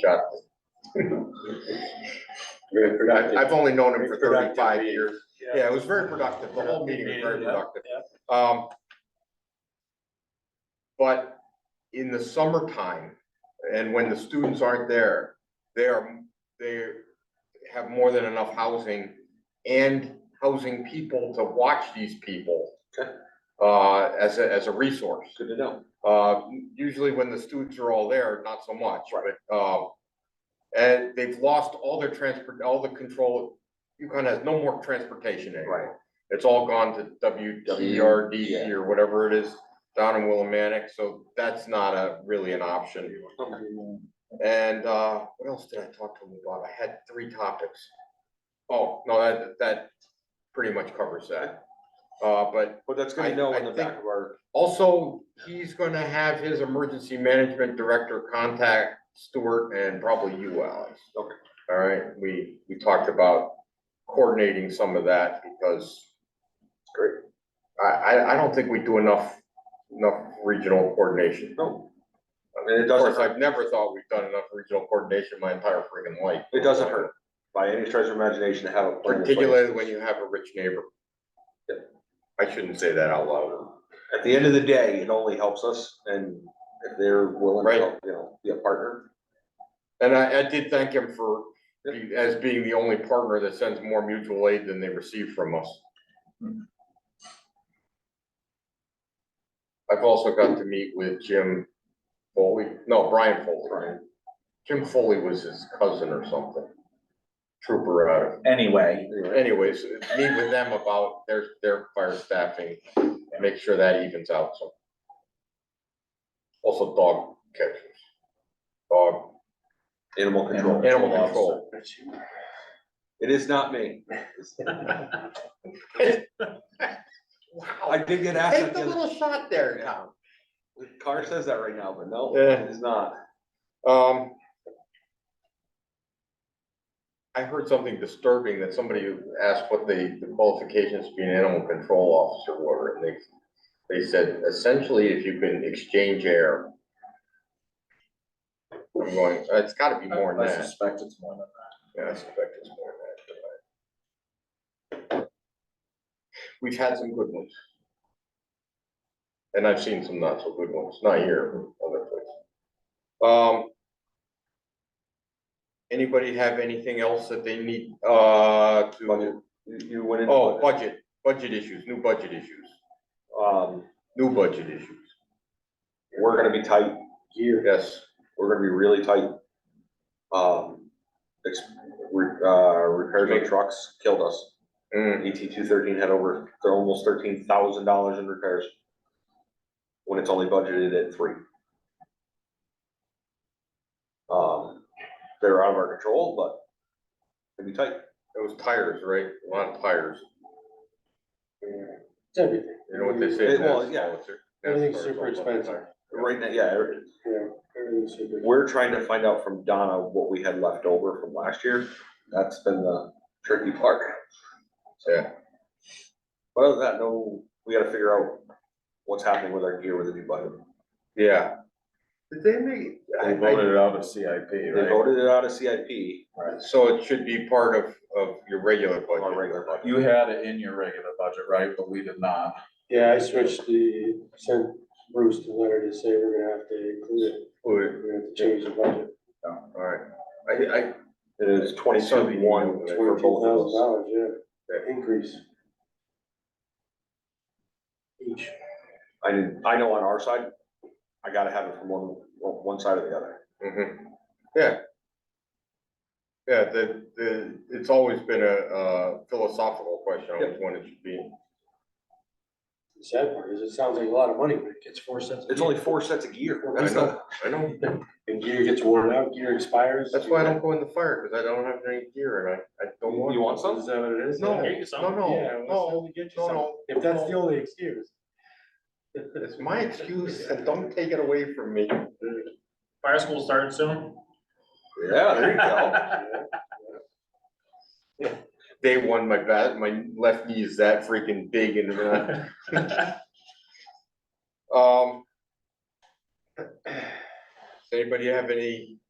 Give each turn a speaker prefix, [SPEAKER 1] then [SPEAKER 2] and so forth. [SPEAKER 1] shocked. Very
[SPEAKER 2] I-
[SPEAKER 1] productive.
[SPEAKER 2] I've only known him for
[SPEAKER 1] Very productive
[SPEAKER 2] thirty-five
[SPEAKER 1] meeting.
[SPEAKER 2] years. Yeah, it was very productive. The whole meeting was very
[SPEAKER 3] Yeah,
[SPEAKER 2] productive. Um. But in the summertime, and when the students aren't there, they are, they have more than enough housing and housing people to watch these people.
[SPEAKER 1] Okay.
[SPEAKER 2] Uh, as a, as a resource.
[SPEAKER 1] Good to know.
[SPEAKER 2] Uh, usually when the students are all there, not so much, but, um, and they've lost all their transport, all the control. UConn has no more transportation anymore. It's all gone to WWRD
[SPEAKER 1] Yeah.
[SPEAKER 2] or whatever it is down in Willimantic, so that's not a, really an option. And, uh, what else did I talk to them about? I had three topics. Oh, no, that, that pretty much covers that. Uh, but
[SPEAKER 1] Well, that's
[SPEAKER 2] I-
[SPEAKER 1] good to know
[SPEAKER 2] I
[SPEAKER 1] on the
[SPEAKER 2] think-
[SPEAKER 1] back of our,
[SPEAKER 2] also, he's gonna have his emergency management director contact Stuart and probably you, Alex.
[SPEAKER 1] Okay.
[SPEAKER 2] All right, we, we talked about coordinating some of that because
[SPEAKER 1] great,
[SPEAKER 2] I, I, I don't think we do enough, enough regional coordination.
[SPEAKER 1] no. I mean, it
[SPEAKER 2] Of
[SPEAKER 1] doesn't
[SPEAKER 2] course,
[SPEAKER 1] hurt,
[SPEAKER 2] I've never thought we've done enough regional coordination my entire freaking life.
[SPEAKER 1] it doesn't hurt by any stretch of imagination to have a plan. in place.
[SPEAKER 2] Particularly when you have a rich neighbor. I shouldn't say that out loud.
[SPEAKER 1] At the end of the day, it only helps us and if they're willing to,
[SPEAKER 2] Right.
[SPEAKER 1] help, you know, be a partner.
[SPEAKER 2] And I, I did thank him for,
[SPEAKER 1] Yep.
[SPEAKER 2] be- as being the only partner that sends more mutual aid than they receive from us. I've also got to meet with Jim Foley, no, Brian Foley.
[SPEAKER 1] Brian.
[SPEAKER 2] Jim Foley was his cousin or something. Trooper out of,
[SPEAKER 3] Anyway,
[SPEAKER 1] Anyway,
[SPEAKER 2] anyways, meet with them about their, their fire staffing, make sure that evens out, so. Also dog catchers. Dog,
[SPEAKER 1] Animal control.
[SPEAKER 2] animal control.
[SPEAKER 1] It is not me. I
[SPEAKER 2] Wow.
[SPEAKER 1] did get asked. that the other-
[SPEAKER 2] shot there, Tom.
[SPEAKER 1] Car says that right now, but no,
[SPEAKER 2] Yeah.
[SPEAKER 1] it is not.
[SPEAKER 2] Um. I heard something disturbing that somebody asked what the the qualifications to be an animal control officer were, and they, they said essentially if you can exchange air. I'm going, it's gotta be more than
[SPEAKER 3] I
[SPEAKER 2] that.
[SPEAKER 3] suspect it's more than
[SPEAKER 2] Yeah, I suspect it's more than that. but I- We've had some good ones. And I've seen some not so good ones, not here, other places. Um. Anybody have anything else that they need, uh, to,
[SPEAKER 1] You, you went into.
[SPEAKER 2] oh, budget, budget issues, new budget issues,
[SPEAKER 1] Um,
[SPEAKER 2] new budget issues,
[SPEAKER 1] we're gonna be tight here.
[SPEAKER 2] yes.
[SPEAKER 1] We're gonna be really tight. Um, ex- re- uh, repairs on trucks killed us.
[SPEAKER 2] Mm,
[SPEAKER 1] ET two thirteen had over, they're almost thirteen thousand dollars in repairs. When it's only budgeted at three. Um, they're out of our control, but it'd be tight.
[SPEAKER 2] it was tires, right, a lot of tires,
[SPEAKER 4] It's everything.
[SPEAKER 2] you know what they say?
[SPEAKER 1] It- well,
[SPEAKER 2] that's-
[SPEAKER 1] yeah.
[SPEAKER 2] that's-
[SPEAKER 4] Everything's super expensive.
[SPEAKER 1] Right now, yeah, it-
[SPEAKER 4] Yeah, everything's super.
[SPEAKER 1] We're trying to find out from Donna what we had left over from last year. That's been the tricky part.
[SPEAKER 2] Yeah.
[SPEAKER 1] But other than that, no, we gotta figure out what's happening with our gear with the new budget.
[SPEAKER 2] Yeah. Did they make?
[SPEAKER 3] that. They voted it out of CIP,
[SPEAKER 1] They
[SPEAKER 3] right?
[SPEAKER 1] voted it out of CIP
[SPEAKER 2] So it should be part of, of your regular
[SPEAKER 1] on our
[SPEAKER 2] budget.
[SPEAKER 1] regular budget.
[SPEAKER 3] You had it in your regular budget, right? But we did not.
[SPEAKER 4] Yeah, I switched the, sent Bruce the letter to say we're gonna have to include it,
[SPEAKER 2] Alright,
[SPEAKER 4] we're gonna have to change the budget,
[SPEAKER 2] I, I,
[SPEAKER 1] It is twenty-two one for
[SPEAKER 4] twenty-two
[SPEAKER 1] both of
[SPEAKER 4] thousand
[SPEAKER 1] those.
[SPEAKER 4] dollars, yeah, the increase. Each,
[SPEAKER 1] I didn't, I know on our side, I gotta have it from one, one side or the other.
[SPEAKER 2] mhm. yeah. Yeah, the, the, it's always been a, uh philosophical question, on which one it should be.
[SPEAKER 4] the sad part is, it sounds like a lot of money, but it gets four cents. a
[SPEAKER 1] It's
[SPEAKER 4] year.
[SPEAKER 1] only four sets of gear. That's
[SPEAKER 2] I
[SPEAKER 1] the-
[SPEAKER 2] know, I know,
[SPEAKER 4] And gear gets worn out, gear expires.
[SPEAKER 2] that's why I don't go in the fire, cause I don't have any gear and I, I don't want.
[SPEAKER 1] You want some?
[SPEAKER 4] Is that what it is?
[SPEAKER 2] No,
[SPEAKER 4] Yeah.
[SPEAKER 2] no, no, no, no, no,
[SPEAKER 4] If that's the only excuse.
[SPEAKER 2] it's my excuse and don't take it away from me.
[SPEAKER 5] Fire school starting soon?
[SPEAKER 1] Yeah, there you go.
[SPEAKER 2] Day one, my back, my left knee is that freaking big and, uh, um. Does anybody have any